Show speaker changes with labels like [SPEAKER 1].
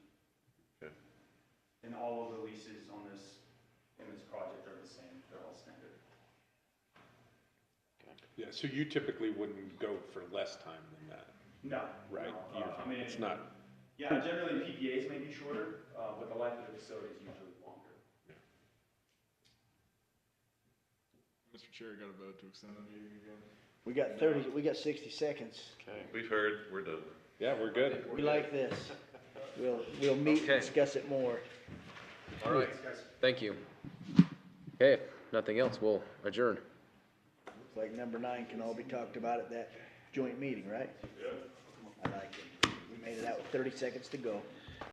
[SPEAKER 1] all of the leases on this, in this project are the same, they're all standard.
[SPEAKER 2] Yeah, so you typically wouldn't go for less time than that,
[SPEAKER 1] No.
[SPEAKER 2] right?
[SPEAKER 1] no, uh, I
[SPEAKER 2] You-
[SPEAKER 1] mean,
[SPEAKER 2] It's not,
[SPEAKER 1] yeah, generally PPAs may be shorter, uh, but the life of the facility is usually longer.
[SPEAKER 3] Mr. Chair, got a vote to extend the meeting again.
[SPEAKER 4] We got thirty, we got sixty seconds.
[SPEAKER 5] Okay.
[SPEAKER 6] We've heard, we're done.
[SPEAKER 2] yeah, we're good.
[SPEAKER 4] We like this. We'll, we'll meet
[SPEAKER 5] Okay.
[SPEAKER 4] and discuss it more.
[SPEAKER 5] All right.
[SPEAKER 1] Thanks, guys.
[SPEAKER 5] Thank you. Okay, if nothing else, we'll adjourn.
[SPEAKER 4] Looks like number nine can all be talked about at that joint meeting, right? I like it. We made it out with thirty seconds to go.